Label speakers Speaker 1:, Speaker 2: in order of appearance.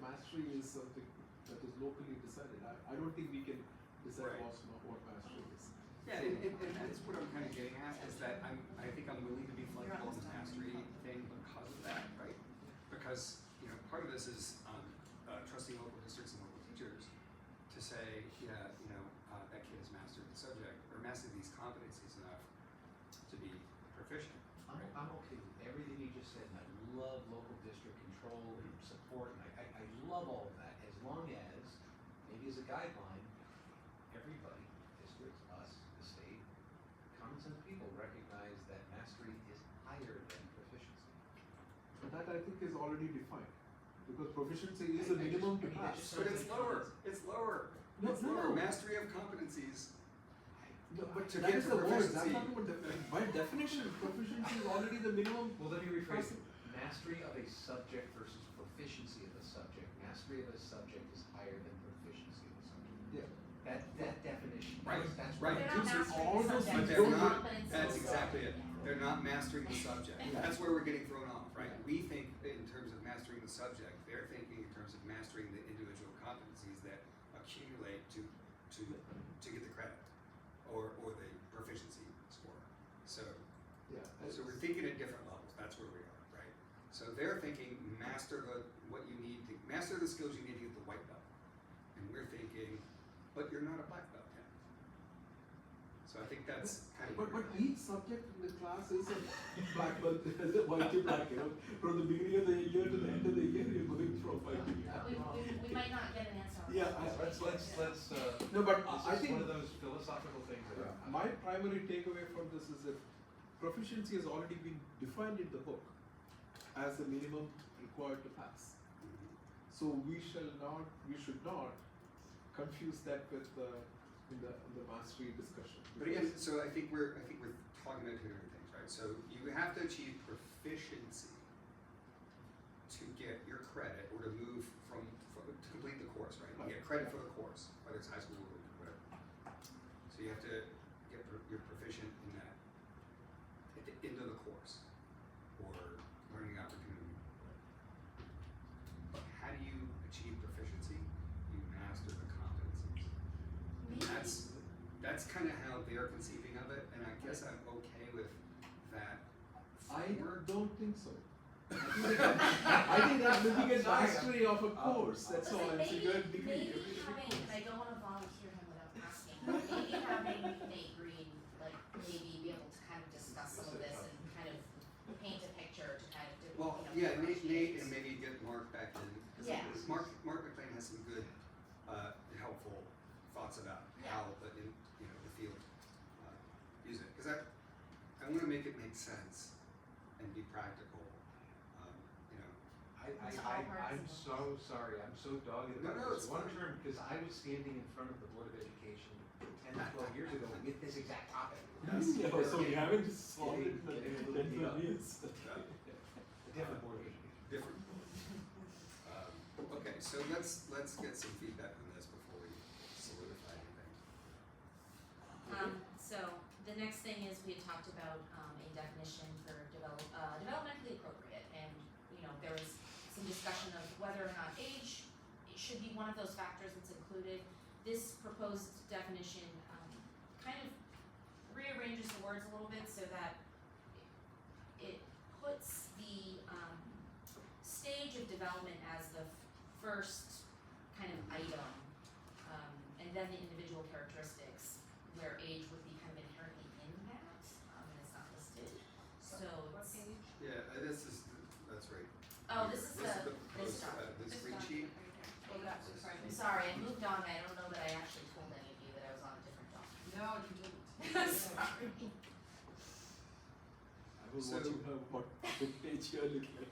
Speaker 1: pasture is something that is locally decided. I, I don't think we can decide
Speaker 2: Right.
Speaker 1: what's, not what pasture is.
Speaker 2: Yeah, and, and, and that's what I'm kind of getting at is that I'm, I think I'm willing to be flexible on the mastery thing because of that, right? Because, you know, part of this is, um, uh, trusting local districts and local teachers to say, yeah, you know, uh, that kid has mastered the subject or mastered these competencies enough to be proficient.
Speaker 3: I'm, I'm okay with everything you just said, and I love local district control and support, and I, I, I love all of that, as long as, maybe as a guideline, everybody, districts, us, the state, common sense people recognize that mastery is higher than proficiency.
Speaker 1: But that I think is already defined, because proficiency is a
Speaker 3: I- I
Speaker 1: minimum to
Speaker 3: just- I mean, I
Speaker 1: pass.
Speaker 3: just-
Speaker 2: But it's lower, it's lower,
Speaker 1: No,
Speaker 2: it's
Speaker 1: no,
Speaker 2: lower,
Speaker 1: no.
Speaker 2: mastery of competencies.
Speaker 1: No, but
Speaker 2: to
Speaker 1: that
Speaker 2: get
Speaker 1: is
Speaker 2: to
Speaker 1: the worst, I'm
Speaker 2: proficiency-
Speaker 1: talking about the, by definition, proficiency is already the minimum.
Speaker 3: Well, let me rephrase
Speaker 1: Profi-
Speaker 3: it, mastery of a subject versus proficiency of a subject, mastery of a subject is higher than proficiency of a subject.
Speaker 1: Yeah.
Speaker 3: That, that definition,
Speaker 2: Right,
Speaker 3: that's, that's.
Speaker 2: right.
Speaker 4: They're
Speaker 3: what-
Speaker 4: not
Speaker 1: These are
Speaker 4: mastering
Speaker 1: all
Speaker 4: the
Speaker 1: those
Speaker 4: subject,
Speaker 1: things.
Speaker 4: they're
Speaker 1: They're not-
Speaker 4: competencies.
Speaker 2: That's exactly it.
Speaker 4: Yeah.
Speaker 2: They're not mastering the subject.
Speaker 1: Yeah.
Speaker 2: That's where we're getting thrown off, right? We think in terms of mastering the subject, they're thinking in terms of mastering the individual competencies that accumulate to to to get the credit or or the proficiency score. So
Speaker 1: Yeah.
Speaker 2: so we're thinking at different levels. That's where we are, right? So they're thinking master the what you need to master the skills you need to get the white belt. And we're thinking, but you're not a black belt yet. So I think that's kind of
Speaker 1: But,
Speaker 2: where
Speaker 1: but e-
Speaker 2: we're at.
Speaker 1: each subject in the class is a black belt, is a white to black, you know, from the beginning of the year to the end of the year, you're going from white to black.
Speaker 4: We, we, we might not get an answer on
Speaker 1: Yeah,
Speaker 4: that.
Speaker 1: I-
Speaker 3: Let's, let's, let's, uh,
Speaker 1: No, but
Speaker 3: This
Speaker 1: I
Speaker 3: is
Speaker 1: think
Speaker 3: one of those philosophical things that I'm-
Speaker 1: my primary takeaway from this is that proficiency has already been defined in the book as the minimum required to pass.
Speaker 2: Mm-hmm.
Speaker 1: So we shall not, we should not confuse that with the, in the, in the mastery discussion.
Speaker 2: But again, so I think we're I think we're talking about two different things, right? So you have to achieve proficiency to get your credit or to move from, from to complete the course, right? You get credit for the course, whether it's high school or whatever. So you have to get pro- you're proficient in that at the end of the course or learning opportunity. But how do you achieve proficiency? You master the competencies.
Speaker 4: Maybe-
Speaker 2: That's that's kind of how they're conceiving of it, and I guess I'm okay with that.
Speaker 1: I
Speaker 2: framework.
Speaker 1: don't think so. I think that's looking at
Speaker 3: Sorry.
Speaker 1: mastery of a course, that's
Speaker 4: Listen,
Speaker 1: all, it's a
Speaker 4: maybe-
Speaker 1: good degree.
Speaker 4: Maybe having, and I don't wanna volunteer him without asking, but maybe having Nate Green, like, maybe be able to kind of discuss some of this and kind of paint a picture to kind of, do- you know.
Speaker 2: Well, yeah, Nate, Nate, and
Speaker 4: differentiate.
Speaker 2: maybe get Mark back in. 'cause
Speaker 4: Yeah.
Speaker 2: Mark, Mark McLean has some good, uh, helpful thoughts about
Speaker 4: Yeah.
Speaker 2: how the, in, you know, the field, uh, use it, cause I, I wanna make it make sense and be practical, um, you know.
Speaker 3: I, I,
Speaker 4: It's all
Speaker 3: I, I'm
Speaker 4: parts
Speaker 3: so sorry, I'm so dogged
Speaker 2: No,
Speaker 3: about
Speaker 2: no, it's
Speaker 3: this. One
Speaker 2: fine.
Speaker 3: term, because I was standing in front of the Board of Education ten to twelve years ago with this exact topic.
Speaker 2: Yes.
Speaker 1: Yeah, so we haven't solved it
Speaker 3: Yeah, yeah,
Speaker 1: in
Speaker 3: yeah.
Speaker 1: ten twelve years.
Speaker 3: A different Board of Education.
Speaker 2: different. Um, okay, so let's let's get some feedback on this before we solidify anything.
Speaker 4: Um, so the next thing is we had talked about, um, a definition for develop, uh, developmentally appropriate and, you know, there was some discussion of whether or not age should be one of those factors that's included. This proposed definition, um, kind of rearranges the words a little bit so that it- it puts the, um, stage of development as the f- first kind of item, um, and then the individual characteristics where age would be kind of inherently in that, um, and it's not listed. So, it's-
Speaker 2: Yeah, uh, this is that's right.
Speaker 4: oh, this is the, this
Speaker 2: proposed,
Speaker 4: stuff.
Speaker 2: uh, this green sheet.
Speaker 4: Hold it up, sorry. I'm sorry, I moved on, I don't know that I actually told any of you that I was on a different document.
Speaker 5: No, you didn't.
Speaker 4: I'm sorry.
Speaker 1: I was
Speaker 2: So-
Speaker 1: watching her, what, the page you're looking at.
Speaker 2: uh,